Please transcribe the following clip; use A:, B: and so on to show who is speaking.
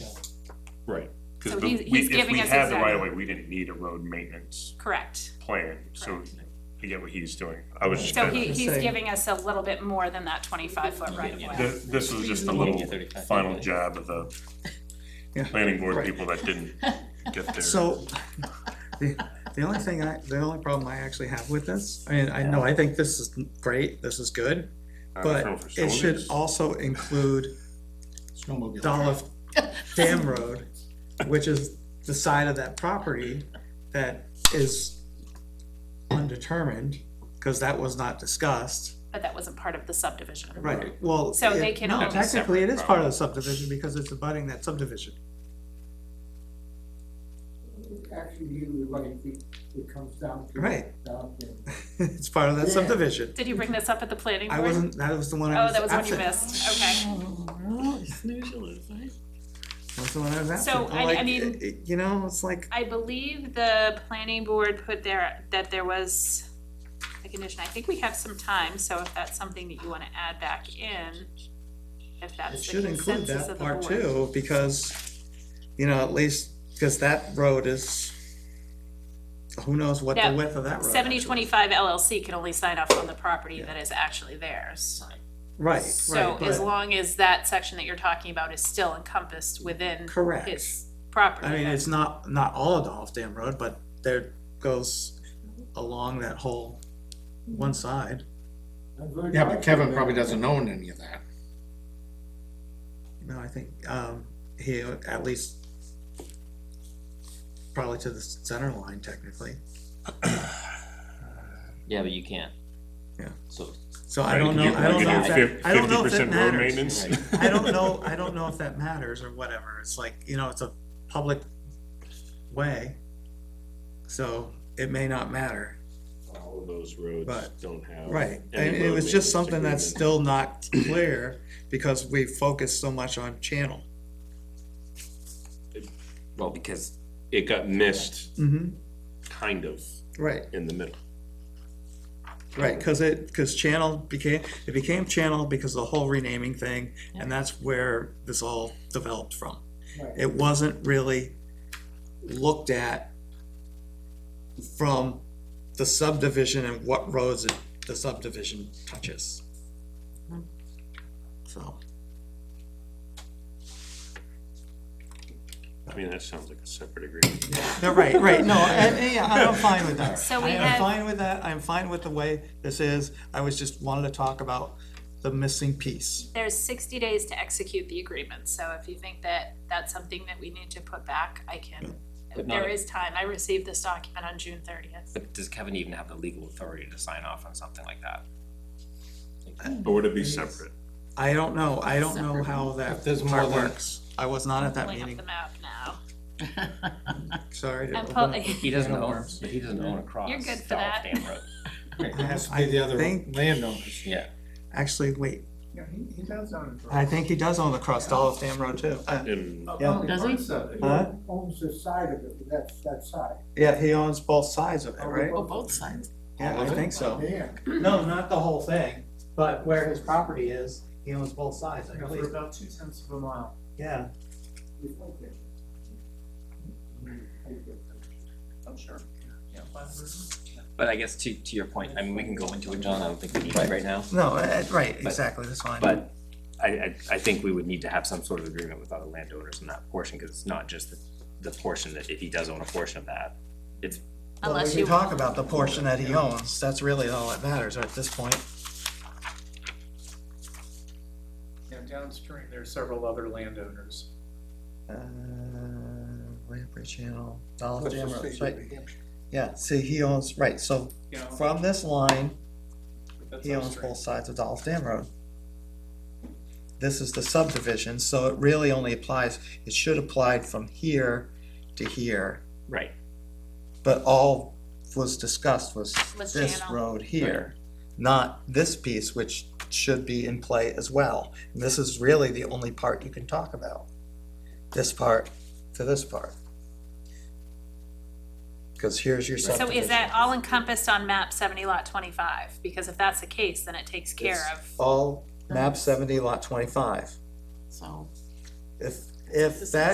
A: Right.
B: 'Cause
C: So
B: the-
C: he's-
B: we-
C: he's giving us
B: If we had
C: his
B: the
C: data.
B: right of way, we didn't need a road maintenance
C: Correct.
B: plan, so
C: Correct.
B: I get what he's doing. I was just
C: So
B: kinda,
C: he,
D: Just
C: he's
D: saying.
C: giving us a little bit more than that twenty-five foot right of way.
B: th- this was just a little final jab of the
D: Yeah.
B: planning board
D: Right.
B: people that didn't get their.
D: So, the, the only thing I, the only problem I actually have with this, I mean, I know, I think this is great, this is good,
B: I don't know
D: but
B: for
D: it should
B: facilities.
D: also include
E: Snowmobile.
D: Dolph Dam Road, which is the side of that property that is undetermined, cause that was not discussed.
C: But that wasn't part of the subdivision.
D: Right, well.
C: So they
D: it-
C: can
D: no,
C: own
D: Technically, it is part of the subdivision because it's abutting that subdivision.
E: Actually, you're right, it, it comes down to.
D: Right.
E: down to-
D: It's part of that
E: Yeah.
D: subdivision.
C: Did you bring this up at the planning
D: I
C: board?
D: wasn't, that was the one I
C: Oh,
D: was
C: that was
D: absent.
C: one you missed, okay.
D: That's the one I was asking.
C: So,
D: I'm
C: I- I
D: like,
C: mean-
D: it- it- You know, it's like,
C: I believe the planning board put there, that there was a condition, I think we have some time, so if that's something that you wanna add back in, if
D: it
C: that's the
D: should include
C: consensus
D: that
C: of the
D: part
C: board.
D: too, because, you know, at least, because that road is, who knows what the
C: Now,
D: width of that road.
C: Seventy
D: actually-
C: twenty-five LLC can only sign off on the property that is actually theirs.
D: Right,
C: So
D: right,
C: as
D: but,
C: long as that section that you're talking about is still encompassed within
D: Correct.
C: his property.
D: I mean,
C: then-
D: it's not, not all of Dolph Dam Road, but there goes along that whole
C: Mm-hmm.
D: one side.
E: I'm very
F: Yeah, but Kevin
E: confident
F: probably doesn't own any of that.
D: No, I think, um, he, at least, probably to the center line technically.
G: Yeah, but you can't.
D: Yeah.
G: So,
D: So I
B: Right,
D: don't
B: you
D: know,
B: could-
D: I don't
B: you
D: know
B: could
D: if
B: do
D: that,
B: fif-
D: I don't know if that
B: 50% road
D: matters.
B: maintenance.
G: right,
D: I don't know, I don't know if that matters or whatever, it's like, you know, it's a public way. So it may not matter,
A: All of those roads
D: But-
A: don't have.
D: right,
A: any
D: and it
A: road
D: was just
A: maintenance
D: something that's
A: agreement.
D: still not clear, because we focus so much on channel.
G: well, because
A: It got missed,
D: Mm-hmm,
A: kind of,
D: right,
A: in the middle.
D: right, cause it, cause channel became, it became channel because of the whole renaming thing, and that's where this all developed from.
E: Right.
D: it wasn't really looked at from the subdivision and what roads it- the subdivision touches. So,
B: I mean, that sounds like a separate agreement.
D: no, right, right, no, and, and yeah, I'm fine with that.
C: So we
D: I am
C: had-
D: fine with that, I'm fine with the way this is, I was just wanted to talk about the missing piece.
C: There's sixty days to execute the agreement, so if you think that that's something that we need to put back, I can.
G: But not-
C: There is time, I received this document on June thirtieth.
G: but does Kevin even have the legal authority to sign off on something like that?
B: Or would it be separate?
D: I don't know, I don't know how that
F: If there's more
D: part
F: than-
D: works, I was not at that
C: Pulling up
D: meeting,
C: the map now.
D: sorry. to
C: I'm
D: open
C: pull-
D: up-
G: He doesn't
F: Kind of
G: own,
F: worms.
G: but he doesn't own a cross.
C: You're good for
G: down
C: that.
G: Dam Road.
F: It has to be the other
D: I think-
F: landowners.
G: Yeah,
D: Actually, wait,
E: Yeah, he, he does own it.
D: I think he does own the cross Dolph Dam Road too. Uh,
B: And
D: Yeah.
E: Oh, Does he?
D: Huh?
E: Owns the side of it, that's, that side.
D: Yeah, he owns both sides of it, right?
E: Oh,
H: both sides.
D: Yeah, I think so.
E: Yeah.
D: No, not the whole thing, but where his property is, he owns both sides, I believe.
E: about two tenths of a mile.
D: Yeah,
E: I'm sure.
G: but I guess to, to your point, I mean, we can go into it, John, I don't think we need to right now.
D: no, uh, right, exactly, that's fine.
G: But I, I, I think we would need to have some sort of agreement with other landowners in that portion, cause it's not just the, the portion that, if he does own a portion of that.
D: Well,
C: Unless
D: We
C: you,
D: can talk about the portion that he owns, that's really all that matters at this point.
I: Yeah, downstream, there are several other landowners.
D: Uh, Lamprey Channel, Dollar Dam Road, right, yeah, see, he owns, right, so
I: You know,
D: from this line,
I: that's
D: He owns
I: upstream.
D: both sides of Dolph Dam Road. This is the subdivision, so it really only applies, it should apply from here to here,
G: Right.
D: but all was discussed was
C: Was
D: this
C: channel.
D: road here, not this piece, which should be in play as well. And this is really the only part you can talk about, this part to this part. Cause here's your
C: so
D: subdivision.
C: is that all encompassed on map seventy lot twenty-five? Because if that's the case, then it takes care
D: It's
C: of,
D: All map seventy lot twenty-five.
H: So.
D: If, if that